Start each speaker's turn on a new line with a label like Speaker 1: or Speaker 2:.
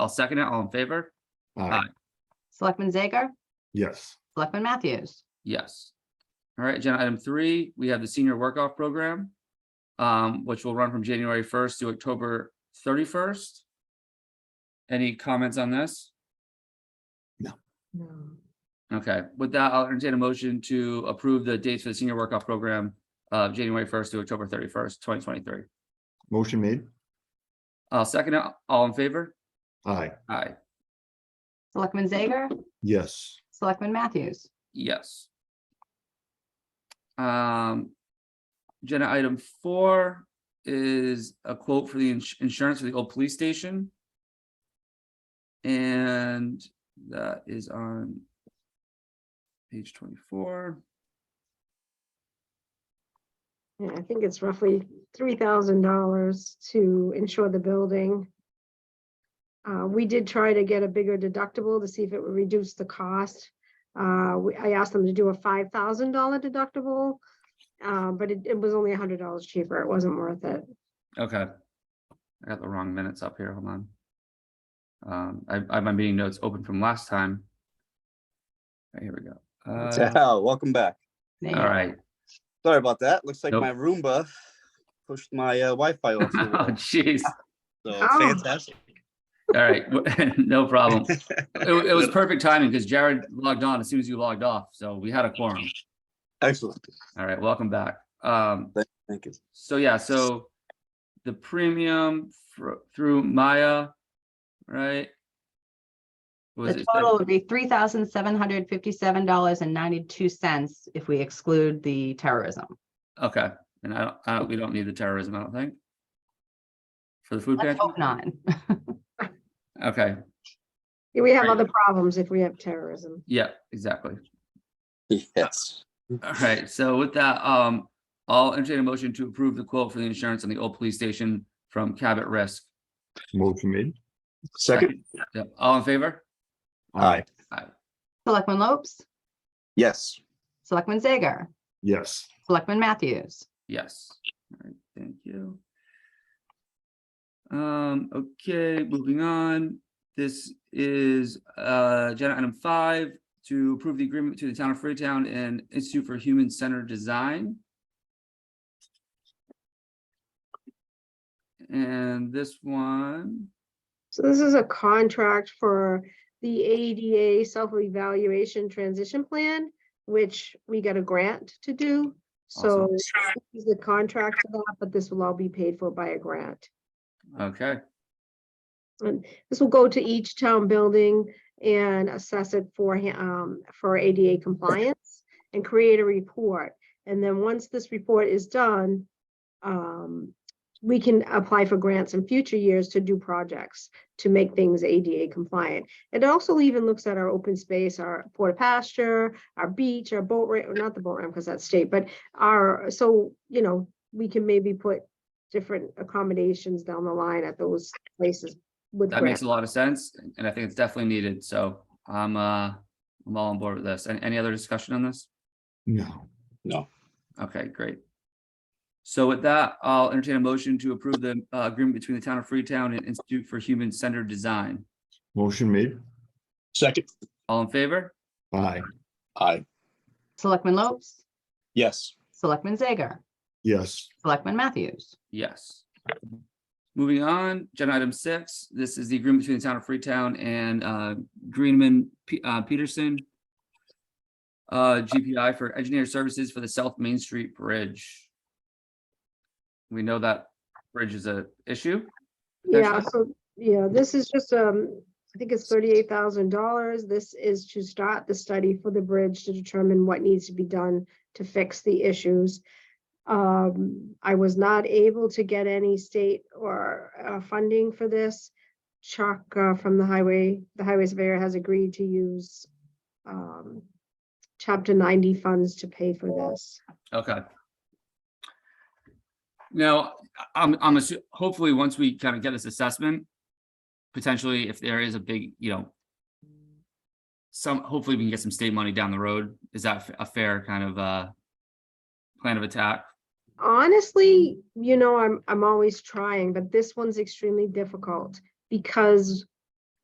Speaker 1: I'll second it. All in favor?
Speaker 2: Aye.
Speaker 3: Selectman Zager?
Speaker 2: Yes.
Speaker 3: Selectman Matthews?
Speaker 1: Yes. All right, agenda item three, we have the senior workoff program, um, which will run from January first to October thirty-first. Any comments on this?
Speaker 4: No.
Speaker 1: Okay, with that, I'll entertain a motion to approve the dates for the senior workoff program of January first to October thirty-first, twenty twenty-three.
Speaker 2: Motion made.
Speaker 1: I'll second it. All in favor?
Speaker 2: Aye.
Speaker 1: Aye,
Speaker 3: Selectman Zager?
Speaker 2: Yes.
Speaker 3: Selectman Matthews?
Speaker 1: yes. Um, agenda item four is a quote for the ins- insurance for the old police station. And that is on page twenty-four.
Speaker 4: Yeah, I think it's roughly three thousand dollars to insure the building. Uh, we did try to get a bigger deductible to see if it would reduce the cost. Uh, we- I asked them to do a five thousand dollar deductible. Uh, but it, it was only hundred dollars cheaper. It wasn't worth it.
Speaker 1: Okay. I got the wrong minutes up here, hold on. Um, I, I have my meeting notes open from last time. All right, Here we go. Uh,
Speaker 5: Ciao, welcome back.
Speaker 3: There you
Speaker 1: all
Speaker 3: go.
Speaker 1: right.
Speaker 5: Sorry about that. Looks like
Speaker 1: Nope.
Speaker 5: my Roomba pushed my uh, Wi-Fi off. the
Speaker 1: Oh,
Speaker 5: wall.
Speaker 1: jeez.
Speaker 5: So
Speaker 4: Oh.
Speaker 5: fantastic.
Speaker 1: All right, no problem. It, it was perfect timing because Jared logged on as soon as you logged off, so we had a quorum.
Speaker 5: Excellent.
Speaker 1: All right, welcome back. Um,
Speaker 5: Thank you.
Speaker 1: so yeah, so the premium fro- through Maya, right? Was
Speaker 3: The
Speaker 1: it
Speaker 3: total would be three thousand seven hundred fifty-seven dollars and ninety-two cents if we exclude the terrorism.
Speaker 1: Okay, and I don't, I don't, we don't need the terrorism, I don't think. For the food
Speaker 3: Let's
Speaker 1: pantry?
Speaker 3: hope not.
Speaker 1: Okay,
Speaker 4: We have
Speaker 1: Right.
Speaker 4: other problems if we have terrorism.
Speaker 1: yeah, exactly.
Speaker 5: Yes.
Speaker 1: All right, so with that, um, I'll entertain a motion to approve the quote for the insurance on the old police station from Cabot Risk.
Speaker 2: Motion made.
Speaker 5: Second.
Speaker 1: Yep, All in favor?
Speaker 5: Aye.
Speaker 3: Selectman Lopes?
Speaker 5: Yes.
Speaker 3: Selectman Zager?
Speaker 2: Yes.
Speaker 3: Selectman Matthews?
Speaker 1: Yes. All right, thank you. Um, okay, moving on. This is uh agenda item five to approve the agreement to the town of Freetown and Institute for Human Centered Design. And this one,
Speaker 4: So this is a contract for the ADA self-evaluation transition plan, which we got a grant to do. So
Speaker 1: Awesome.
Speaker 4: this is the contract for that, but this will all be paid for by a grant.
Speaker 1: okay,
Speaker 4: This will go to each town building and assess it for, ha- um, for ADA compliance and create a report. And then once this report is done, um, we can apply for grants in future years to do projects to make things ADA compliant. It also even looks at our open space, our porta pasture, our beach, our boat ramp, not the boat ramp because that's state, but our, so, you know, we can maybe put different accommodations down the line at those places with
Speaker 1: that makes
Speaker 4: grants.
Speaker 1: a lot of sense, and I think it's definitely needed, so I'm uh, I'm all on board with this. Any, any other discussion on this?
Speaker 2: No.
Speaker 1: Okay, great. So with that, I'll entertain a motion to approve the uh, agreement between the town of Freetown and Institute for Human Centered Design.
Speaker 2: Motion made.
Speaker 5: Second.
Speaker 1: All in favor?
Speaker 2: Aye.
Speaker 5: Aye.
Speaker 3: Selectman Lopes?
Speaker 5: Yes.
Speaker 3: Selectman Zager?
Speaker 2: Yes.
Speaker 3: Selectman Matthews?
Speaker 1: Yes. Moving on, agenda item six, this is the agreement between the town of Freetown and uh, Greenman P- uh, Peterson. uh, GPI for engineer services for the South Main Street Bridge. We know that bridge is a issue.
Speaker 4: Yeah, so, yeah, this is just, um, I think it's thirty-eight thousand dollars. This is to start the study for the bridge to determine what needs to be done to fix the issues. Um, I was not able to get any state or, uh, funding for this. Chuck, uh, from the highway, the highway surveyor has agreed to use, um, chapter ninety funds to pay for this.
Speaker 1: Okay. Now, I- I'm, I'm, assu- hopefully, once we kind of get this assessment, potentially if there is a big, you know, some, hopefully we can get some state money down the road. Is that f- a fair kind of, uh, plan of attack?
Speaker 4: honestly, you know, I'm, I'm always trying, but this one's extremely difficult because